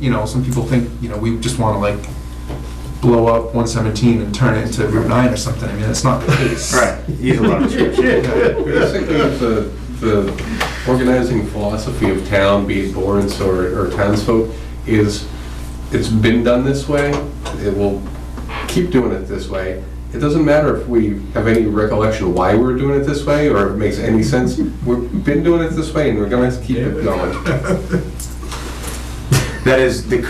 you know, some people think, you know, we just want to like blow up 117 and turn it into Route 9 or something. I mean, that's not the case. Right, use a lot of description. Basically, the, the organizing philosophy of town, be it Lawrence or, or townsfolk, is it's been done this way, it will keep doing it this way. It doesn't matter if we have any recollection why we're doing it this way, or if it makes any sense. We've been doing it this way, and we're gonna keep it going. That is the current,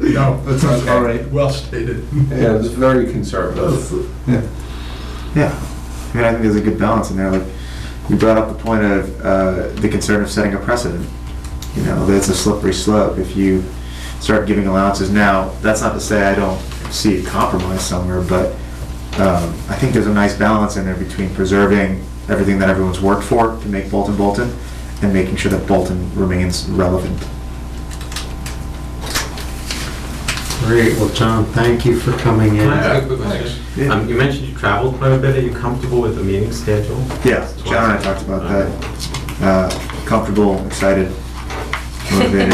Disagreement? No, That sounds all right. well stated. Yeah, it's very conservative. Yeah. yeah. I mean, I think there's a good balance in there, like, you brought up the point of, uh, the concern of setting a precedent. You know, that's a slippery slope, if you start giving allowances now, that's not to say I don't see a compromise somewhere, but, um, I think there's a nice balance in there between preserving everything that everyone's worked for to make Bolton Bolton, and making sure that Bolton remains relevant. Great, well, John, thank you for coming in. Yeah, good question. Yeah. Um, you mentioned you traveled quite a bit. Are you comfortable with the meeting schedule? Yeah, John and I talked Uh, about that. Uh, Comfortable, excited, motivated.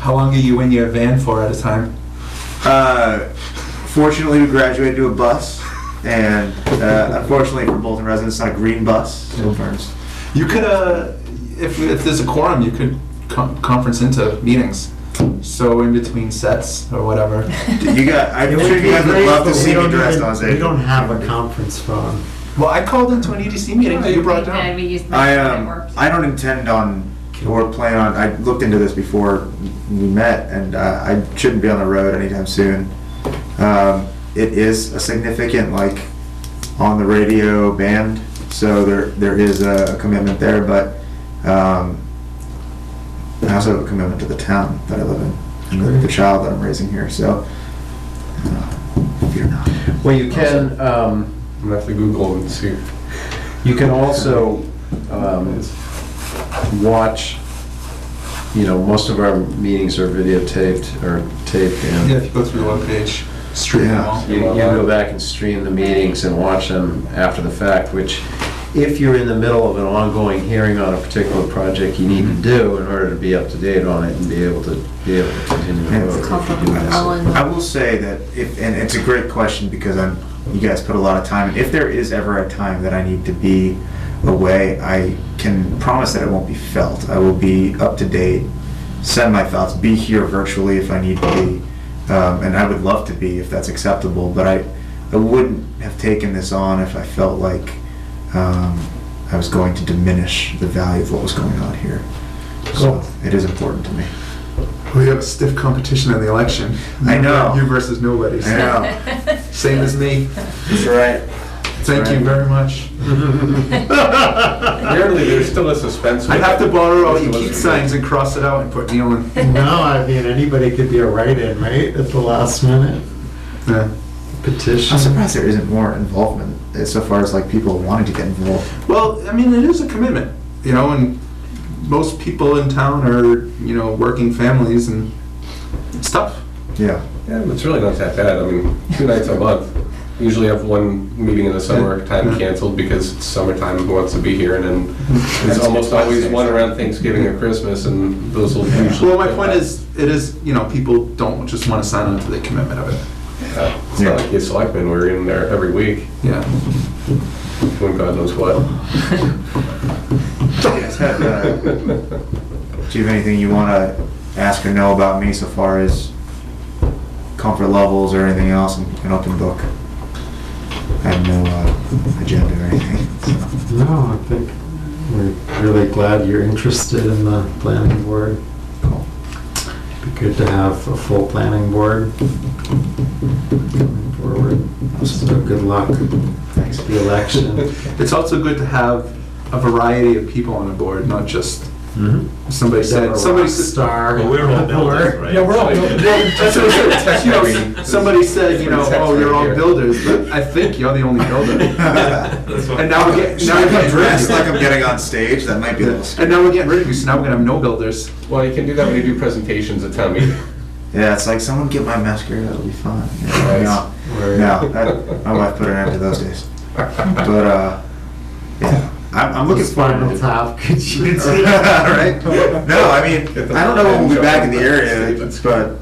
How long are you in your van for at a time? Uh, Fortunately, we graduated to a bus, and uh, unfortunately for Bolton residents, it's not a green bus. so burns. You could, uh, if, if there's a quorum, you could con- conference into meetings. So in between sets or whatever. You got, I'm It sure would you be guys would great, love to but we see me don't dressed even- on stage. We don't have a conference phone. Well, I called into an EDC meeting that you brought Yeah, down. we used I, that, it um, worked. I don't intend on or plan on, I looked into this before we met and uh, I shouldn't be on the road anytime soon. Um, it is a significant, like, on the radio band, so there, there is a commitment there, but, um, I also have a commitment to the town that I live in, and the- the child that I'm raising here, so. uh, Fear not. Well, you can, um, I'm gonna have to Google and see. you can also, um, watch, you know, most of our meetings are videotaped or taped Yeah, and if you go through the webpage, stream them all. you you go back and stream the meetings and watch them after the fact, which if you're in the middle of an ongoing hearing on a particular project, you need to do in order to be up to date on it and be able to, be able to continue. to Yeah, vote it's if called you do that. Oh, I will say that if, and it's a great question because I'm, you guys put a lot of time. in. If there is ever a time that I need to be away, I can promise that it won't be felt. I will be up to date, send my thoughts, be here virtually if I need to be, um, and I would love to be if that's acceptable. But I, I wouldn't have taken this on if I felt like um, I was going to diminish the value of what was going on here. So Cool. it is important to me. We have a stiff competition in the election. I know. You versus nobody. I know. Same as me. That's right. Thank you very much. Apparently, there's still a suspense. I'd have to borrow all your There's key still a- signs and cross it out and put Neil in. No, I mean, anybody could be a write-in, right, at the last minute Yeah. petition. I'm surprised there isn't more involvement as so far as like people wanting to get involved. Well, I mean, it is a commitment, you know, and most people in town are, you know, working families and it's tough. Yeah. Yeah, it's really not that bad. I mean, two nights a month. Usually have one meeting in the summer, time canceled because it's summertime, who wants to be here? And then there's almost always one around Thanksgiving or Christmas and those will usually. Well, my point is, it is, you know, people don't just want to sign on to the commitment of it. Uh, It's not like you selectmen, we're in there every week, Yeah. doing God knows what. Do you guys have, uh, do you have anything you want to ask or know about me so far as comfort levels or anything else? I'm an open book. I have no uh, agenda or anything. so. No, I think we're really glad you're interested in the planning board. Cool. Be good to have a full planning board coming forward. So good luck with Thanks. the election. It's also good to have a variety of people on a board, not just, somebody Never said, rock somebody said. Star. Well, we're all builders, right? Yeah, we're all builders. That's what I said, you know, Somebody said, you know, oh, you're all builders, but I think you're the only builder. And now we're getting, Should now I we're get getting dressed like rid I'm of getting on stage? That might be a little you. And scary. now we're getting rid of you, so now we're gonna have no builders. Well, you can do that when you do presentations at town meeting. Yeah, it's like someone get my mascara. That'll be fun. Yeah, no. Where- No, that, my wife put an end to those days. But uh, yeah, I'm, I'm looking forward to Spinal tap, could you? Right? No, I mean, I don't know when we'll be back in the area, but